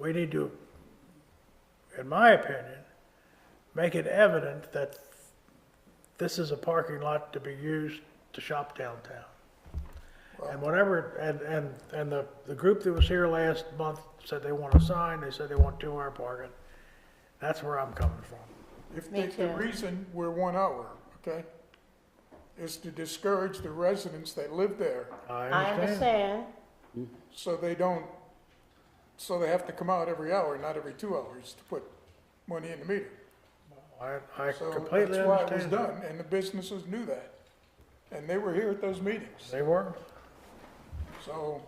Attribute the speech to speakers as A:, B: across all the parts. A: We need to, in my opinion, make it evident that this is a parking lot to be used to shop downtown. And whatever, and, and, and the, the group that was here last month said they want a sign, they said they want two-hour parking. That's where I'm coming from.
B: If the,
C: Me
B: the
C: too.
B: reason we're one hour, okay, is to discourage the residents that live there,
C: I understand.
B: so they don't, so they have to come out every hour, not every two hours, to put money in the meter.
A: I, I
B: So
A: completely
B: That's why it was
A: understand. that.
B: done, and the businesses knew that, and they were here at those meetings,
A: They were,
B: so,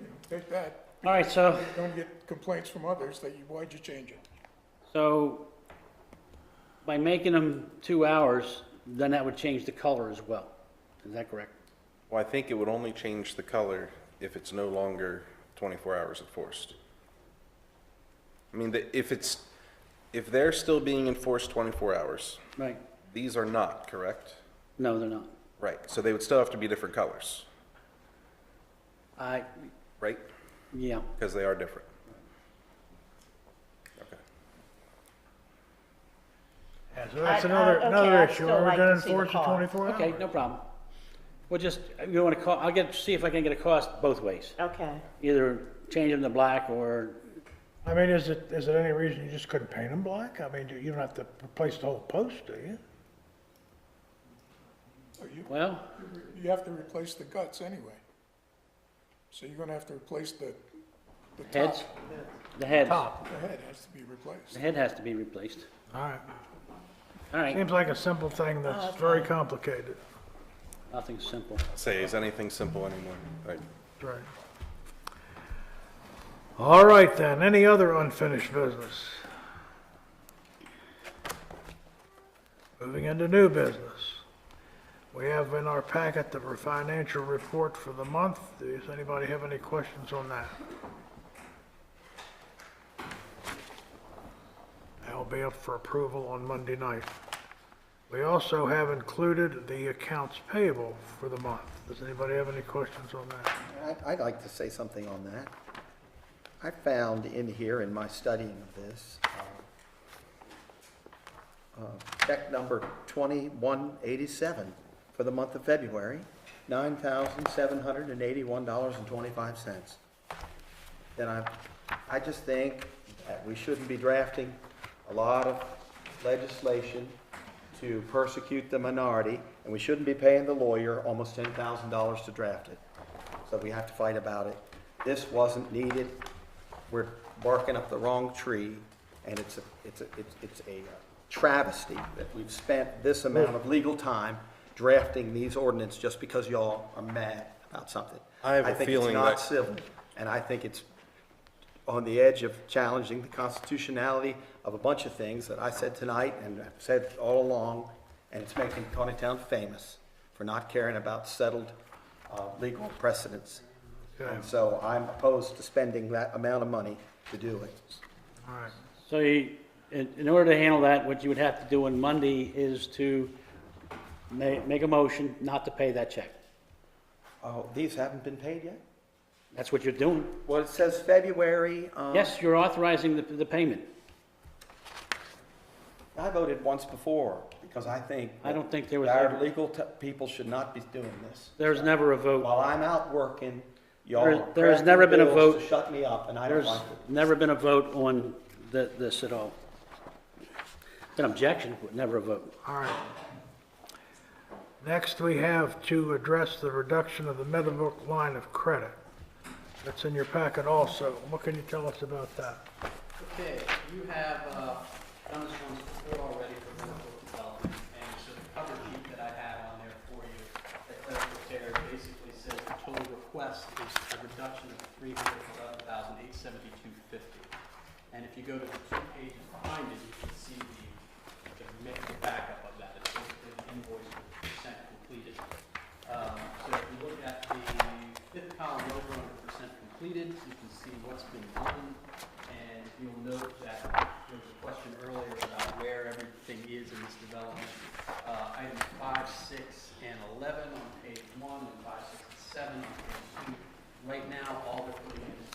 B: you know, take that,
D: All right, so,
B: don't get complaints from others that you, why'd you change it?
D: so by making them two hours, then that would change the color as well. Is that correct?
E: Well, I think it would only change the color if it's no longer 24 hours enforced. I mean, the- if it's, if they're still being enforced 24 hours,
D: Right?
E: these are not, correct?
D: No, they're not.
E: Right, so they would still have to be different colors,
D: I,
E: right?
D: yeah.
E: Because they are different. Okay.
A: yeah, so that's
C: I- I-
A: another,
C: okay,
A: another
C: I'd
A: issue,
C: still
A: are we
C: like
A: gonna
C: to see the
A: enforce the
C: car.
A: twenty-four
D: Okay,
A: hours?
D: no problem. We'll just, you want to call, I'll get, see if I can get a cost both ways.
C: Okay.
D: Either change them to black or,
A: I mean, is it, is there any reason you just couldn't paint them black? I mean, do- you don't have to replace the whole post, do you?
B: Are you-
D: well,
B: You have to replace the guts anyway. So you're gonna have to replace the, the top.
D: heads, the heads.
A: Top.
B: The head has to be
D: The
B: replaced.
D: head has to be replaced.
A: All right.
D: All right,
A: Seems like a simple thing that's very complicated.
D: nothing's simple.
E: Say, is anything simple anymore? Right.
A: Right. All right then, any other unfinished business? Moving into new business. We have in our packet the financial report for the month. Does anybody have any questions on that? That'll be up for approval on Monday night. We also have included the accounts payable for the month. Does anybody have any questions on that?
F: I- I'd like to say something on that. I found in here, in my studying of this, uh, uh, check number 2187 for the month of February, $9,781.25. Then I, I just think that we shouldn't be drafting a lot of legislation to persecute the minority, and we shouldn't be paying the lawyer almost ten thousand dollars to draft it. So we have to fight about it. This wasn't needed. We're barking up the wrong tree, and it's a, it's a, it's- it's a travesty that we've spent this amount of legal time drafting these ordinance just because y'all are mad about something.
E: I have a
F: think it's
E: feeling
F: not
E: that-
F: civil, and I think it's on the edge of challenging the constitutionality of a bunch of things that I said tonight and have said all along, and it's making Tawnytown famous for not caring about settled uh, legal precedents. And so I'm opposed to spending that amount of money to do it.
A: All right.
D: So you, in, in order to handle that, what you would have to do on Monday is to ma- make a motion not to pay that check.
F: Oh, these haven't been paid yet?
D: That's what you're doing.
F: Well, it says February. um,
D: Yes, you're authorizing the, the payment.
F: I voted once before because I think.
D: I don't think there was
F: Our
D: ever-
F: legal te- people should not be doing this.
D: There's never a vote.
F: While I'm out working, y'all
D: There-
F: are
D: there has never been a
F: cracking bills
D: vote.
F: to shut me up, and I don't
D: There's
F: like it.
D: never been a vote on th this at all. An objection, but never a vote.
A: All right. Next, we have to address the reduction of the Meadowbrook line of credit. That's in your packet also. What can you tell us about that?
G: Okay, you have uh, done this once before already for Norfolk Development, and so the cover sheet that I had on there for you, that Claire prepared, basically says the total request is a reduction of three hundred eleven thousand eight seventy-two fifty. And if you go to the two pages behind it, you can see the, the mix backup of that, it's basically the invoice with percent completed. Um, So if you look at the fifth column over under percent completed, you can see what's been done. And you'll note that there was a question earlier about where everything is in this development. Uh, Items five, six, and 11 on page one, and five, six, and seven on page two. Right now, all they're putting in is